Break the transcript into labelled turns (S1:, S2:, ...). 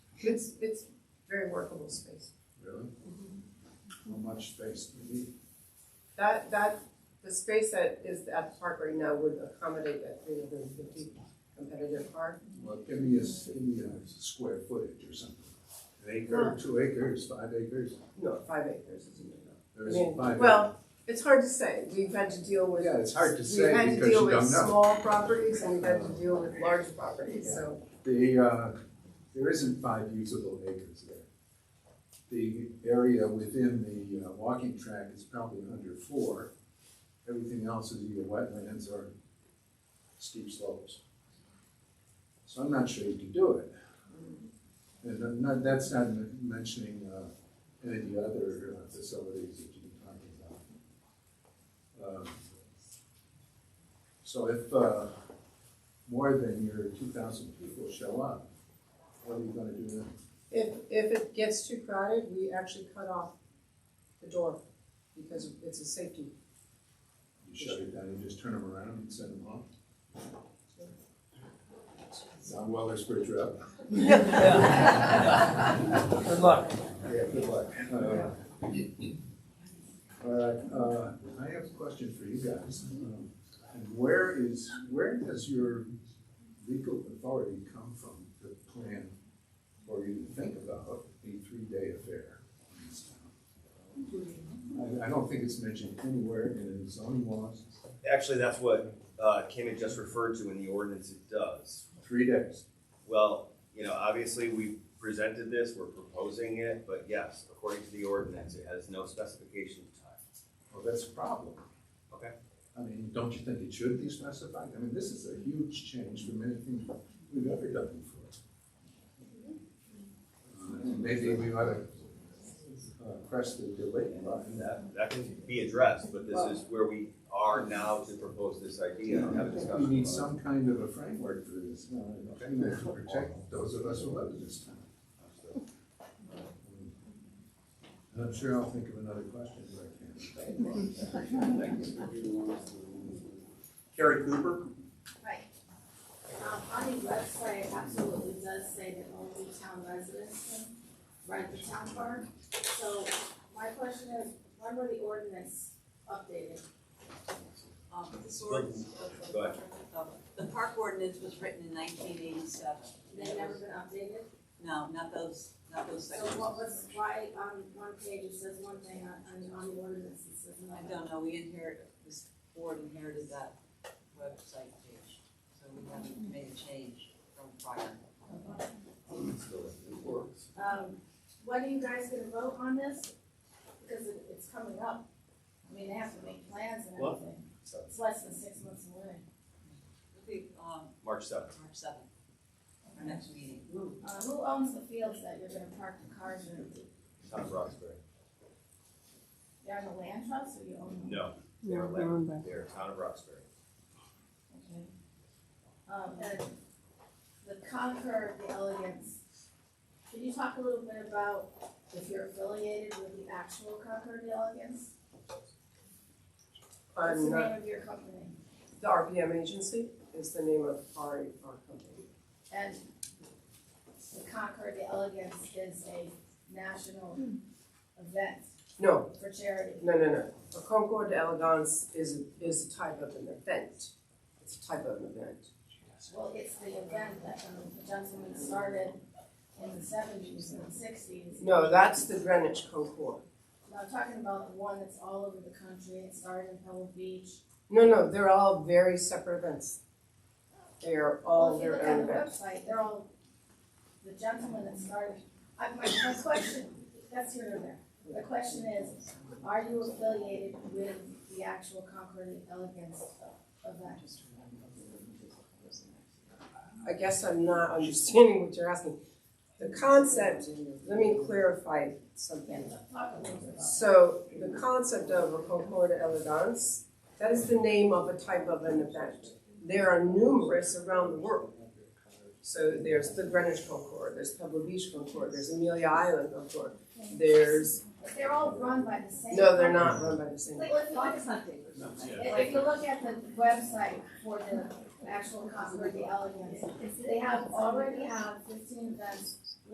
S1: It's, it's very workable space.
S2: Really? Mm-hmm. How much space do you need?
S1: That, that, the space that is at the park right now would accommodate that three hundred and fifty competitive car.
S2: Well, give me a, s- give me a square footage or something. An acre, two acres, five acres,
S1: No, five acres is enough.
S2: there's
S1: I mean,
S2: five.
S1: Well, it's hard to say. We've had to deal with.
S2: Yeah, it's hard to say
S1: We've had to
S2: because
S1: deal
S2: you
S1: with
S2: don't know.
S1: small properties and we've had to deal with large properties, so.
S2: The, uh, there isn't five usable acres there. The area within the uh, walking track is probably under four. Everything else is either wetlands or steep slopes. So I'm not sure you can do it. And I'm not- that's not men- mentioning uh, any of the other uh, facilities that you've been talking about. Um, So if, uh, more than your two thousand people show up, what are you gonna do then?
S1: If, if it gets too crowded, we actually cut off the door because it's a safety.
S2: You shut it down, you just turn them around and send them home? Sound well, there's bridge up.
S3: Good luck.
S2: Yeah, good luck. Uh, All right, uh, I have a question for you guys. Um, And where is, where does your legal authority come from to plan or even think about a three-day affair in this town? I, I don't think it's mentioned anywhere in the zoning laws,
S4: Actually, that's what uh, Kim had just referred to in the ordinance it does.
S2: three days.
S4: Well, you know, obviously, we presented this, we're proposing it, but yes, according to the ordinance, it has no specification of time.
S2: Well, that's a problem.
S4: Okay.
S2: I mean, don't you think it should be specified? I mean, this is a huge change from anything we've ever done before. Uh, Maybe we ought to uh, press the delay
S4: And
S2: button.
S4: That, that can be addressed, but this is where we are now to propose this idea and have a
S2: We
S4: discussion.
S2: need
S4: about it.
S2: some kind of a framework for this, uh, you know, to protect those of us who live in this town. And I'm sure I'll think of another question if I can.
S5: Carrie Cooper?
S6: Right. Um, on the website, it absolutely does say that only town residents can rent the town park. So my question is, when were the ordinance updated?
S7: Um, this ordinance,
S4: Go ahead.
S7: the park ordinance was written in nineteen eighty-seven.
S6: They never been updated?
S7: No, not those, not those
S6: So
S7: sections.
S6: what was, why on one page it says one thing, on, on- on the ordinance it says
S7: I
S6: another?
S7: don't know, we inherited, this board inherited that website page, so we haven't made a change from prior.
S6: Um, when are you guys gonna vote on this? Because it, it's coming up. I mean, they have to make plans and
S4: Well-
S6: everything. It's less than six months away.
S7: It'll be, um,
S4: March seventh.
S7: March seventh, our next meeting.
S6: Uh, who owns the fields that you're gonna park the cars in?
S4: Tom Roxbury.
S6: They're on the land trust or you own them?
S4: No, they're land, they're town of Roxbury.
S6: Okay. Um, and the Concord, the Elegance, can you talk a little bit about if you're affiliated with the actual Concord, the Elegance? What's the
S1: I'm not,
S6: name of your company?
S1: the RPM agency is the name of our, our company.
S6: And the Concord, the Elegance is a national event
S1: No,
S6: for charity.
S1: no, no, no. A Concours d'Elegance is, is a type of an event. It's a type of an event.
S6: Well, it's the event that um, the gentleman started in the seventies and sixties.
S1: No, that's the Greenwich Concours.
S6: No, I'm talking about the one that's all over the country, it started in Pebble Beach.
S1: No, no, they're all very separate events. They are all
S6: Well, if you
S1: their
S6: look on
S1: own
S6: the
S1: events.
S6: website, they're all, the gentleman that started, I, my, my question, that's here and there. The question is, are you affiliated with the actual Concord Elegance event?
S1: I guess I'm not understanding what you're asking. The concept, let me clarify something.
S6: Talk a little bit about
S1: So the concept of a concours d'elegance, that is the name of a type of an event. There are numerous around the world. So there's the Greenwich Concours, there's Pebble Beach Concours, there's Amelia Island Concours, there's,
S6: it. But they're all run by the same.
S1: no, they're not run by the same.
S6: Well, if you look-
S7: hunting.
S6: If if you look at the website for the actual Concord Elegance, they have, already have fifteen events